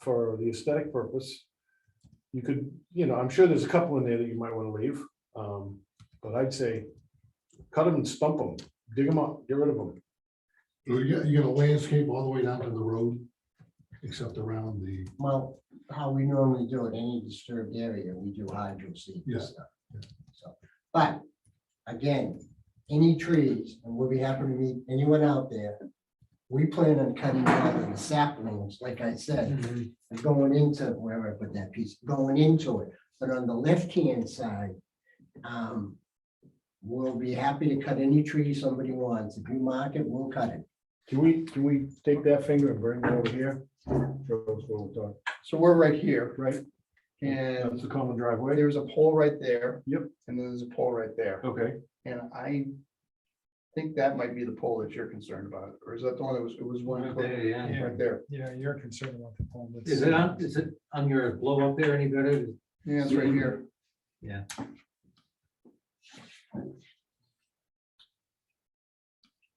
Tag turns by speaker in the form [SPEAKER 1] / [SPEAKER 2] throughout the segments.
[SPEAKER 1] for the aesthetic purpose. You could, you know, I'm sure there's a couple in there that you might want to leave, um, but I'd say cut them and stump them, dig them up, get rid of them.
[SPEAKER 2] You're gonna- you're gonna landscape all the way down to the road, except around the,
[SPEAKER 3] Well, how we normally do it, any disturbed area, we do hydro seed
[SPEAKER 2] Yeah,
[SPEAKER 3] and stuff. So, but again, any trees, and we'll be happy to meet anyone out there. We plan on cutting down the saplings, like I said,
[SPEAKER 1] Mm-hmm.
[SPEAKER 3] and going into wherever I put that piece, going into it. But on the left-hand side, um, we'll be happy to cut any tree somebody wants. If you mark it, we'll cut it.
[SPEAKER 1] Can we, can we take that finger and bring it over here? Show us what we're talking.
[SPEAKER 4] So we're right here, right?
[SPEAKER 1] That's
[SPEAKER 4] And
[SPEAKER 1] the common driveway.
[SPEAKER 4] there's a pole right there.
[SPEAKER 1] Mm-hmm. Yep.
[SPEAKER 4] And then there's a pole right there.
[SPEAKER 1] Okay,
[SPEAKER 4] And I think that might be the pole that you're concerned about, or is that the one that was, it was one right
[SPEAKER 5] Yeah.
[SPEAKER 6] Yeah,
[SPEAKER 4] there?
[SPEAKER 5] Yeah, you're concerned about the poem. that's-
[SPEAKER 6] is it on, is it on your blow up there any better?
[SPEAKER 4] Yeah, it's right
[SPEAKER 1] Mm-hmm.
[SPEAKER 4] here.
[SPEAKER 6] Yeah.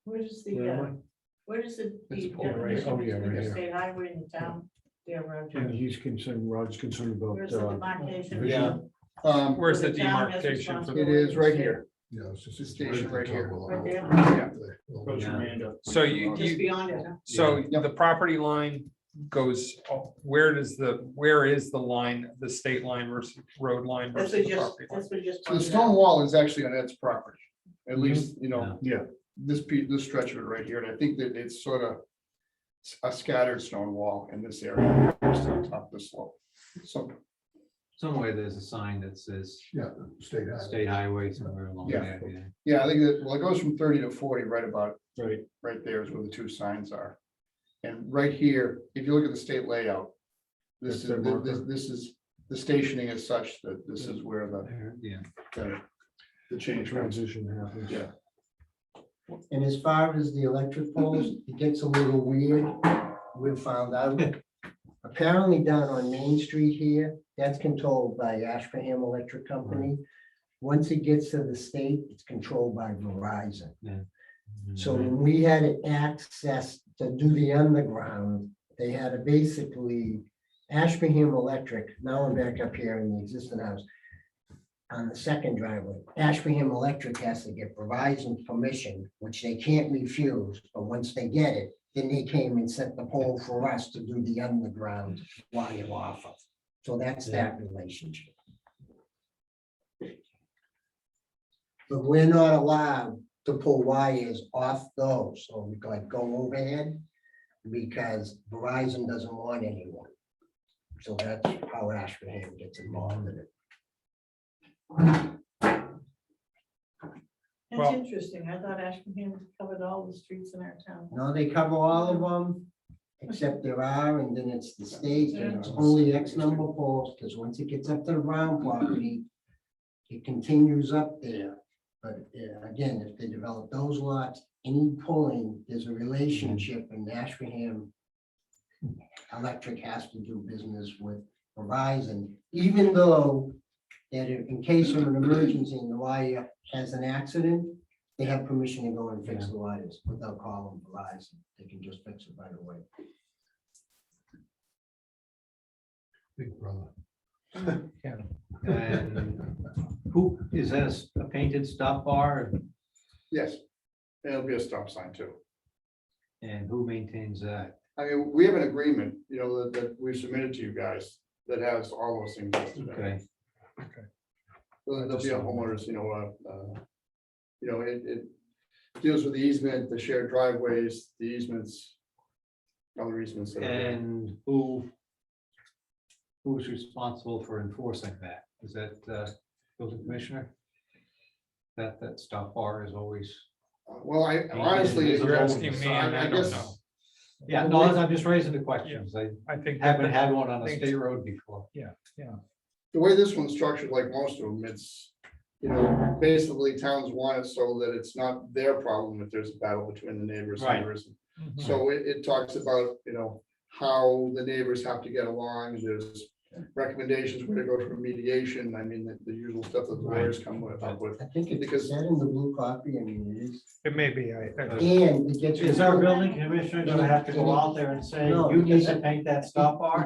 [SPEAKER 7] Where does the,
[SPEAKER 1] where
[SPEAKER 7] uh,
[SPEAKER 1] am
[SPEAKER 7] where does the?
[SPEAKER 4] It's
[SPEAKER 7] the
[SPEAKER 4] a pole, right?
[SPEAKER 1] Oh,
[SPEAKER 7] definition
[SPEAKER 1] yeah, right
[SPEAKER 7] between the
[SPEAKER 1] here.
[SPEAKER 7] State highway and the town, yeah, around
[SPEAKER 1] I? And
[SPEAKER 7] here.
[SPEAKER 1] he's concerned, Rod's concerned about,
[SPEAKER 7] Where's the
[SPEAKER 1] uh,
[SPEAKER 7] demarcation?
[SPEAKER 4] Yeah. Um,
[SPEAKER 5] Where's
[SPEAKER 7] So
[SPEAKER 5] the
[SPEAKER 7] town has
[SPEAKER 5] demarcation for the-
[SPEAKER 4] it is right here.
[SPEAKER 2] you know, it's just.
[SPEAKER 4] It's stationed right here.
[SPEAKER 7] Right there.
[SPEAKER 4] Yeah.
[SPEAKER 6] Goes from
[SPEAKER 5] So you,
[SPEAKER 7] Just
[SPEAKER 5] you,
[SPEAKER 7] beyond it, huh?
[SPEAKER 5] so
[SPEAKER 4] Yeah.
[SPEAKER 5] the property line goes, oh, where does the, where is the line, the state line versus road line
[SPEAKER 7] That's
[SPEAKER 5] versus the
[SPEAKER 7] what just,
[SPEAKER 5] property line?
[SPEAKER 7] that's what just.
[SPEAKER 4] So the
[SPEAKER 7] pointed
[SPEAKER 4] stone
[SPEAKER 7] out.
[SPEAKER 4] wall is actually on Ed's property, at
[SPEAKER 1] Mm-hmm.
[SPEAKER 4] least, you know.
[SPEAKER 1] Yeah.
[SPEAKER 4] This piece, this stretch of it right here, and I think that it's sort of s- a scattered stone wall in this area, just on top of the slope. So,
[SPEAKER 6] Somewhere there's a sign that says
[SPEAKER 2] Yeah, state highway.
[SPEAKER 6] state highway somewhere along
[SPEAKER 4] Yeah.
[SPEAKER 6] there. yeah.
[SPEAKER 4] yeah, I think that, well, it goes from thirty to forty, right about,
[SPEAKER 1] right,
[SPEAKER 4] right there is where the two signs are. And right here, if you look at the state layout, this
[SPEAKER 1] That's
[SPEAKER 4] is,
[SPEAKER 1] their
[SPEAKER 4] thi- this,
[SPEAKER 1] marker.
[SPEAKER 4] this is, the stationing is such that this is where the,
[SPEAKER 6] There, Yeah,
[SPEAKER 4] the- the
[SPEAKER 1] the
[SPEAKER 4] change comes.
[SPEAKER 1] transition happens.
[SPEAKER 4] Yeah.
[SPEAKER 3] And as far as the electric poles, it gets a little weird. We found out. Apparently down on Main Street here, that's controlled by Ashbraham Electric Company. Once it gets to the state, it's controlled by Verizon. So when we had access to do the underground, they had to basically, Ashburnham Electric, now I'm back up here in the existing house. On the second driveway, Ashburnham Electric has to get Verizon's permission, which they can't refuse, but once they get it, then they came and set the pole for us to do the underground wire off of. So that's that relationship. But we're not allowed to pull wires off those, so we like go overhead. Because Verizon doesn't want anyone. So that's how Ashburnham gets involved in it.
[SPEAKER 5] Well-
[SPEAKER 7] That's interesting. I thought Ashburnham covered all the streets in our town.
[SPEAKER 3] No, they cover all of them, except there are, and then it's the state, and it's only X number of poles, because once it gets up to the round property. It continues up there, but yeah, again, if they develop those lots, any pulling, there's a relationship in Ashburnham. Electric has to do business with Verizon, even though that in in case of an emergency and the wire has an accident, they have permission to go and fix the wires without calling Verizon. They can just fix it right away.
[SPEAKER 2] Big brother.
[SPEAKER 6] And who, is that a s- a painted stop bar
[SPEAKER 4] Yes, it'll be a stop sign too.
[SPEAKER 6] and who maintains that?
[SPEAKER 4] I mean, we have an agreement, you know, that, that we submitted to you guys that has all those things listed. in it.
[SPEAKER 6] Okay,
[SPEAKER 4] There'll there'll be a homeowners, you know, uh, uh, you know, it, it deals with the easement, the shared driveways, the easements. Other easements. that are there.
[SPEAKER 6] and who? Who's responsible for enforcing that? Is that uh, building commissioner? That, that stop bar is always.
[SPEAKER 4] Uh, Well, I honestly.
[SPEAKER 6] You're
[SPEAKER 5] asking me, and I don't
[SPEAKER 4] guess-
[SPEAKER 5] know.
[SPEAKER 6] Yeah, no, I'm just raising the questions. I
[SPEAKER 5] I think. that
[SPEAKER 6] haven't
[SPEAKER 5] the-
[SPEAKER 6] had one on a
[SPEAKER 5] Thanks.
[SPEAKER 6] state road before.
[SPEAKER 4] The way this one's structured, like most of them, it's, you know, basically towns want it so that it's not their problem if there's a battle between the neighbors. and
[SPEAKER 6] Right.
[SPEAKER 4] there isn't.
[SPEAKER 1] Mm-hmm.
[SPEAKER 5] Mhm.
[SPEAKER 4] So it, it talks about, you know, how the neighbors have to get along, there's recommendations where to go for mediation, I mean, the, the usual stuff that the lawyers come with, up with.
[SPEAKER 3] I think it
[SPEAKER 4] Because-
[SPEAKER 3] is that in the blue copy, I mean, it is.
[SPEAKER 5] It may be, I, I-
[SPEAKER 3] And it gets.
[SPEAKER 6] Is our building commissioner gonna have to go out there and say,
[SPEAKER 3] No,
[SPEAKER 6] you need
[SPEAKER 3] because-
[SPEAKER 6] to paint that stop bar?